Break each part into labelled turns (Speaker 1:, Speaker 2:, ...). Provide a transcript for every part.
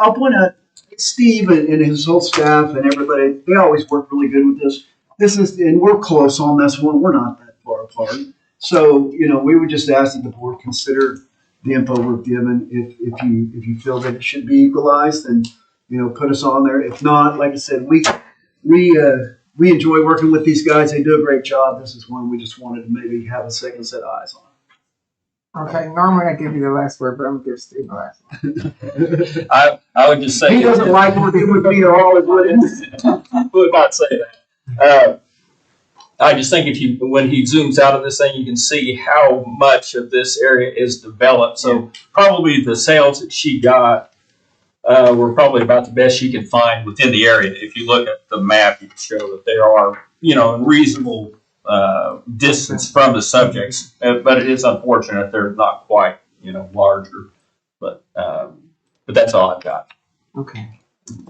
Speaker 1: I'll point out, Steve and, and his whole staff and everybody, they always work really good with this. This is, and we're close on this one, we're not that far apart. So, you know, we would just ask that the board consider the info we're given. If, if you, if you feel that it should be equalized, then, you know, put us on there. If not, like I said, we, we, uh, we enjoy working with these guys. They do a great job. This is one we just wanted to maybe have a second set eyes on.
Speaker 2: Okay, normally I give you the last word, but I'm gonna give Steve the last. one.
Speaker 3: I, I would just say.
Speaker 1: He doesn't like working with me at all, is what it is.
Speaker 3: would not say that. Uh, I just think if you, when he zooms out of this thing, you can see how much of this area is developed. So probably the sales that she got uh, were probably about the best she could find within the area. If you look at the map, you can show that there are, you know, reasonable uh, distance from the subjects. Uh, but it is unfortunate they're not quite, you know, larger. But um, but that's all I've got.
Speaker 2: Okay.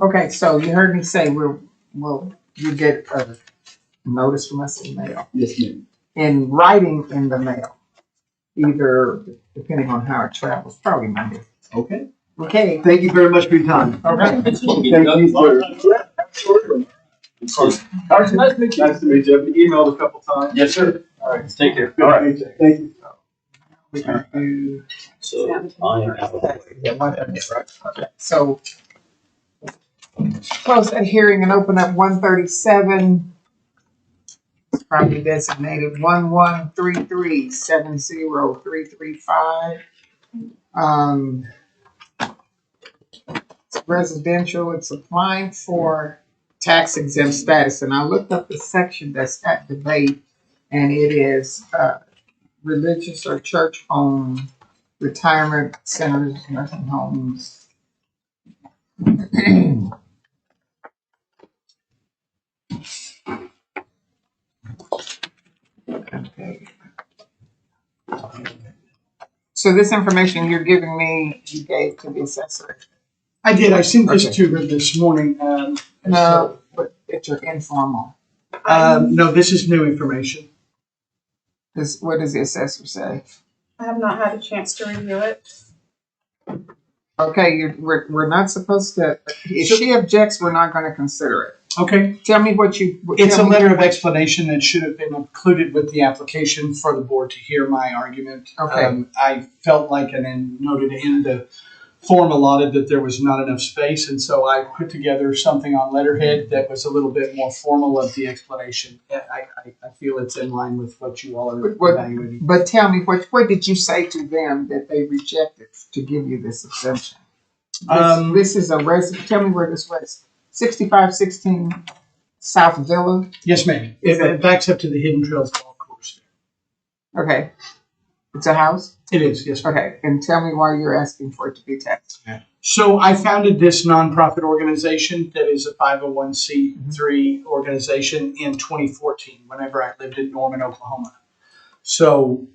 Speaker 2: Okay, so you heard me say we're, well, you get a notice from us in mail,
Speaker 1: Yes, ma'am.
Speaker 2: in writing in the mail. Either, depending on how it travels, probably Monday.
Speaker 1: Okay.
Speaker 2: Okay,
Speaker 1: Thank you very much for your time.
Speaker 2: okay.
Speaker 1: Thank you, sir.
Speaker 4: Nice to meet you. Nice to meet you. I've emailed a couple times.
Speaker 3: Yes, sir.
Speaker 4: All right.
Speaker 3: Take care.
Speaker 4: All right.
Speaker 1: Thank you.
Speaker 2: We can do-
Speaker 3: So I am out of the way.
Speaker 2: Yeah, one of these, right? Okay, So. Close that hearing and open up one thirty-seven. Property designated one one three three seven zero three three five. Um. It's residential, it's applying for tax exempt status, and I looked up the section that's at debate. And it is, uh, religious or church-owned retirement centers, nursing homes. Okay. So this information you're giving me, you gave to the assessor.
Speaker 5: I did, I sent this
Speaker 2: Okay.
Speaker 5: to her this morning, um.
Speaker 2: No, but it's your informal.
Speaker 5: Um, no, this is new information.
Speaker 2: This, what does the assessor say?
Speaker 6: I have not had a chance to review it.
Speaker 2: Okay, you're, we're, we're not supposed to, if she objects, we're not gonna consider
Speaker 5: Okay.
Speaker 2: it. Tell me what you.
Speaker 5: It's a
Speaker 2: tell me-
Speaker 5: letter of explanation that should have been included with the application for the board to hear my argument.
Speaker 2: Okay.
Speaker 5: Um, I felt like, and then noted in the form allotted that there was not enough space, and so I put together something on letterhead that was a little bit more formal of the explanation. I, I, I feel it's in line with what you all are
Speaker 2: But what-
Speaker 5: evaluating.
Speaker 2: But tell me, what what did you say to them that they rejected to give you this exemption? This,
Speaker 5: Um,
Speaker 2: this is a resident. Tell me where this was. Sixty-five sixteen South Villa.
Speaker 5: Yes, ma'am.
Speaker 2: Is
Speaker 5: It
Speaker 2: it-
Speaker 5: backs up to the Hidden Trails Golf Course.
Speaker 2: Okay, it's a house.
Speaker 5: It is, yes, ma'am.
Speaker 2: Okay, and tell me why you're asking for it to be taxed.
Speaker 5: So I founded this nonprofit organization that is a 501c3 organization in 2014 whenever I lived in Norman, Oklahoma. So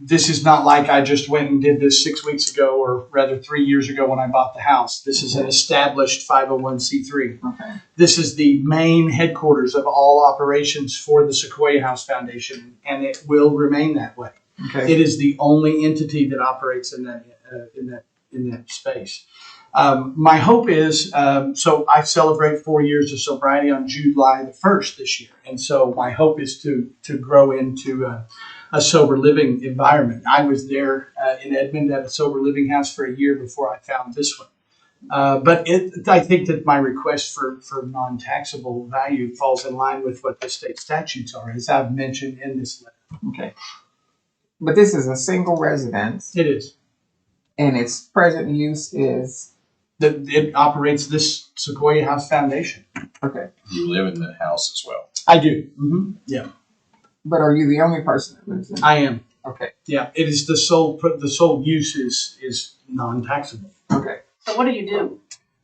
Speaker 5: this is not like I just went and did this six weeks ago or rather three years ago when I bought the house. This is an established 501c3.
Speaker 2: Okay.
Speaker 5: This is the main headquarters of all operations for the Sequoia House Foundation, and it will remain that way.
Speaker 2: Okay.
Speaker 5: It is the only entity that operates in that uh, in that in that space. Um, my hope is um, so I celebrate four years of sobriety on July the first this year, and so my hope is to to grow into a, a sober living environment. I was there uh, in Edmond at a sober living house for a year before I found this one. Uh, but it, I think that my request for, for non-taxable value falls in line with what the state statutes are, as I've mentioned in this letter.
Speaker 2: But this is a single residence,
Speaker 5: It is.
Speaker 2: and its present use is
Speaker 5: that it operates this Sequoia House Foundation.
Speaker 2: okay.
Speaker 3: You live in the house as well.
Speaker 5: I do. hmm Yeah,
Speaker 2: But are you the only person that lives in? it?
Speaker 5: I am.
Speaker 2: Okay.
Speaker 5: Yeah, it is the sole the sole use is is non taxable.
Speaker 2: Okay.
Speaker 6: So what do you do?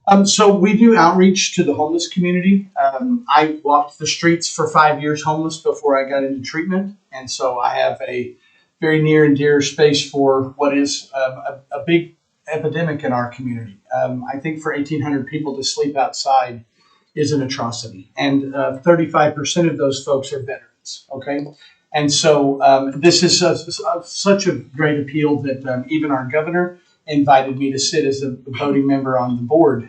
Speaker 5: Um, so we do outreach to the homeless community. Um, I walked the streets for five years homeless before I got into treatment, and so I have a very near and dear space for what is um, a, a big epidemic in our community. Um, I think for 1,800 people to sleep outside is an atrocity, and uh, 35% of those folks are veterans. Okay. And so um, this is a, a- such a great appeal that um, even our governor invited me to sit as a voting member on the board